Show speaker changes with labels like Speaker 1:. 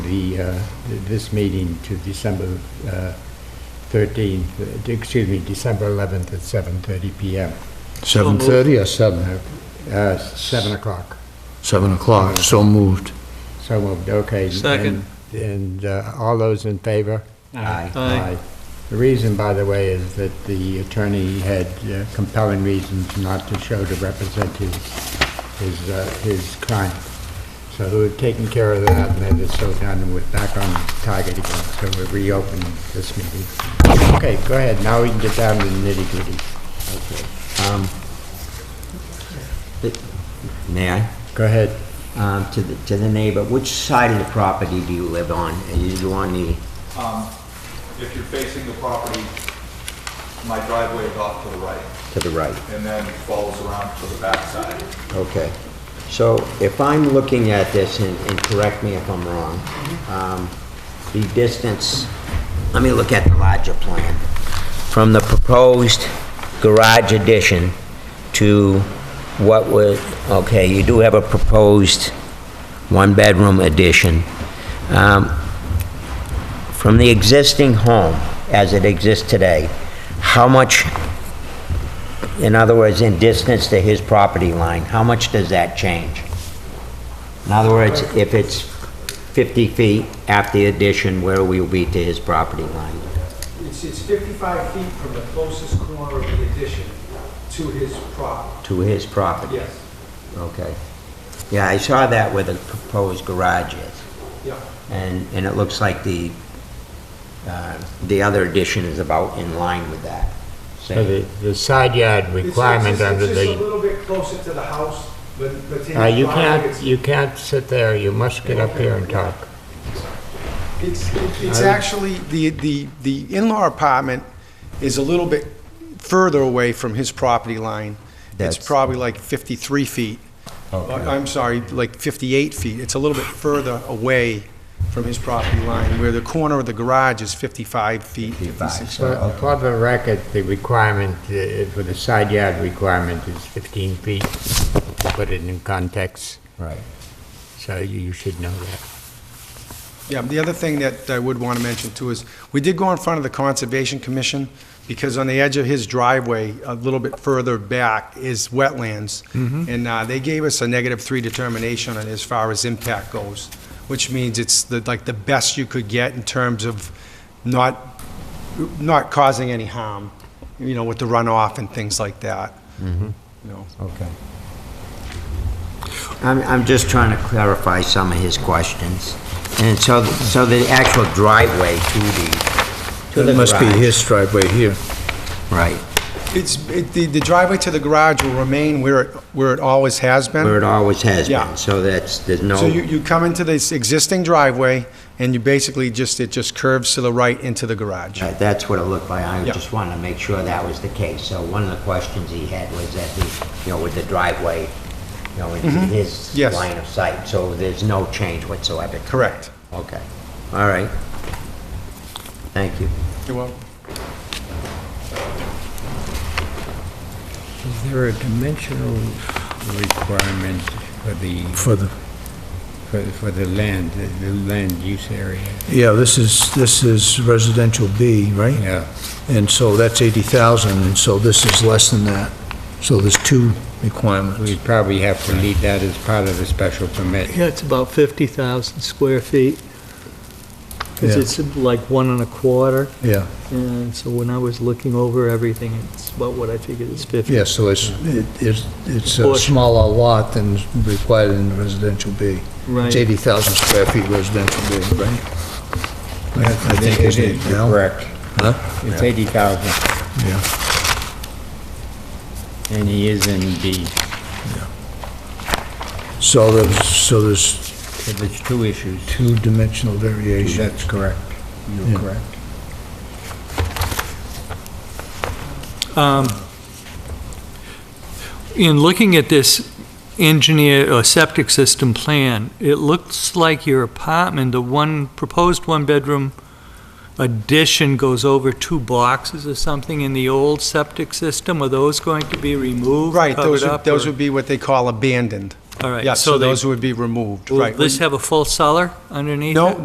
Speaker 1: the, uh, this meeting to December uh, 13th, uh, excuse me, December 11th at 7:30 PM.
Speaker 2: Seven
Speaker 3: moved.
Speaker 2: thirty or seven?
Speaker 1: Uh, 7 o'clock.
Speaker 2: Seven o'clock, so moved.
Speaker 1: So moved, okay.
Speaker 3: Second.
Speaker 1: And and, uh, all those in favor?
Speaker 4: Aye.
Speaker 3: Aye.
Speaker 1: The reason, by the way, is that the attorney had uh, compelling reasons not to show to represent his, his, uh, his client. So we've taken care of that, and that is so done, and we're back on target again, so we're reopening this meeting. Okay, go ahead, now we can get down to the nitty-gritty.
Speaker 4: Um, but- May I?
Speaker 1: Go ahead.
Speaker 4: Um, To the, to the neighbor, which side of the property do you live on? Are you on the,
Speaker 5: Um, If you're facing the property, my driveway is off to the right
Speaker 4: to the right?
Speaker 5: and then follows around to the backside.
Speaker 4: Okay. So if I'm looking at this, and and correct me if I'm wrong, um, the distance, let me look at the larger plan. From the proposed garage addition to what was, okay, you do have a proposed one-bedroom addition. Um, From the existing home, as it exists today, how much in other words, in distance to his property line, how much does that change? In other words, if it's 50 feet after the addition, where will we be to his property line?
Speaker 6: It's, it's 55 feet from the closest corner of the addition to his property,
Speaker 4: To his property?
Speaker 6: yes,
Speaker 4: Okay. Yeah, I saw that where the proposed garage is,
Speaker 6: yeah.
Speaker 4: and, and it looks like the, uh, the other addition is about in line with that.
Speaker 1: So
Speaker 4: Same.
Speaker 1: the, the side yard
Speaker 6: It's-
Speaker 1: requirement
Speaker 6: it's-
Speaker 1: under
Speaker 6: It's just a
Speaker 1: the,
Speaker 6: little bit closer to the house, but, but to
Speaker 1: uh, you
Speaker 6: his property,
Speaker 1: can't,
Speaker 6: it's,
Speaker 1: you can't sit there, you must get up here and talk.
Speaker 7: It's, it's actually, the, the, the in-law apartment is a little bit further away from his property line. It's
Speaker 4: That's-
Speaker 7: probably like 53 feet.
Speaker 1: Oh,
Speaker 7: I'm sorry, like 58 feet. It's a little bit further away from his property line, where the corner of the garage is 55 feet. 56.
Speaker 1: For
Speaker 2: uh,
Speaker 1: for the record, the requirement, uh, for the side yard requirement is 15 feet, to put it in context,
Speaker 4: Right.
Speaker 1: so you you should know that.
Speaker 7: Yeah, the other thing that I would want to mention too is, we did go in front of the Conservation Commission, because on the edge of his driveway, a little bit further back, is wetlands.
Speaker 4: Mm-hmm.
Speaker 7: And uh, they gave us a negative three determination on as far as impact goes, which means it's the- like the best you could get in terms of not, not causing any harm, you know, with the runoff and things like that.
Speaker 4: Mm-hmm.
Speaker 7: You know.
Speaker 4: Okay. I'm, I'm just trying to clarify some of his questions. And so, so the actual driveway to the, to the
Speaker 2: It must be
Speaker 4: garage-
Speaker 2: his driveway here.
Speaker 4: Right,
Speaker 7: It's, it- the the driveway to the garage will remain where, it- where it always has been.
Speaker 4: where it always has
Speaker 7: Yeah.
Speaker 4: been, so that's, there's no,
Speaker 7: So you, you come into this existing driveway, and you basically just, it just curves to the right into the garage.
Speaker 4: Right, that's what it looked like. I
Speaker 7: Yeah.
Speaker 4: just wanted to make sure that was the case. So one of the questions he had was that the, you know, with the driveway, you know, in his
Speaker 7: Mm-hmm. Yes.
Speaker 4: line of sight, so there's no change whatsoever.
Speaker 7: Correct.
Speaker 4: Okay, all right. Thank you.
Speaker 7: You're welcome.
Speaker 1: Is there a dimensional requirement for the,
Speaker 2: For the,
Speaker 1: for for the land, the- the land use area?
Speaker 2: yeah, this is, this is residential B, right?
Speaker 1: Yeah,
Speaker 2: And so that's 80,000, and so this is less than that. So there's two requirements.
Speaker 1: we probably have to leave that as part of the special permit.
Speaker 3: Yeah, it's about 50,000 square feet. Because
Speaker 2: Yeah.
Speaker 3: it's like one and a quarter,
Speaker 2: Yeah,
Speaker 3: and so when I was looking over everything, it's about what I figured is 50.
Speaker 2: yeah, so it's, it- it's it's a
Speaker 3: Portion.
Speaker 2: smaller lot than is required in residential B. It's
Speaker 3: Right,
Speaker 2: 80,000 square feet residential B, right? I- I think
Speaker 1: It
Speaker 2: it's
Speaker 1: is, you're
Speaker 2: now.
Speaker 1: Correct.
Speaker 2: Huh?
Speaker 1: It's 80,000,
Speaker 2: Yeah.
Speaker 1: and he is in B.
Speaker 2: So there's, so there's
Speaker 1: So there's two issues.
Speaker 2: two-dimensional variation.
Speaker 1: That's correct.
Speaker 2: Yeah.
Speaker 1: You're correct.
Speaker 8: Um, In looking at this engineer or septic system plan, it looks like your apartment, the one, proposed one-bedroom addition goes over two boxes or something in the old septic system. Are those going to be removed,
Speaker 7: Right, those
Speaker 8: covered
Speaker 7: would,
Speaker 8: up?
Speaker 7: those
Speaker 8: or-
Speaker 7: would be what they call abandoned.
Speaker 8: All right,
Speaker 7: Yeah, so
Speaker 8: they-
Speaker 7: those would be removed,
Speaker 8: Will
Speaker 7: right.
Speaker 8: this have a full cellar underneath it?
Speaker 7: No,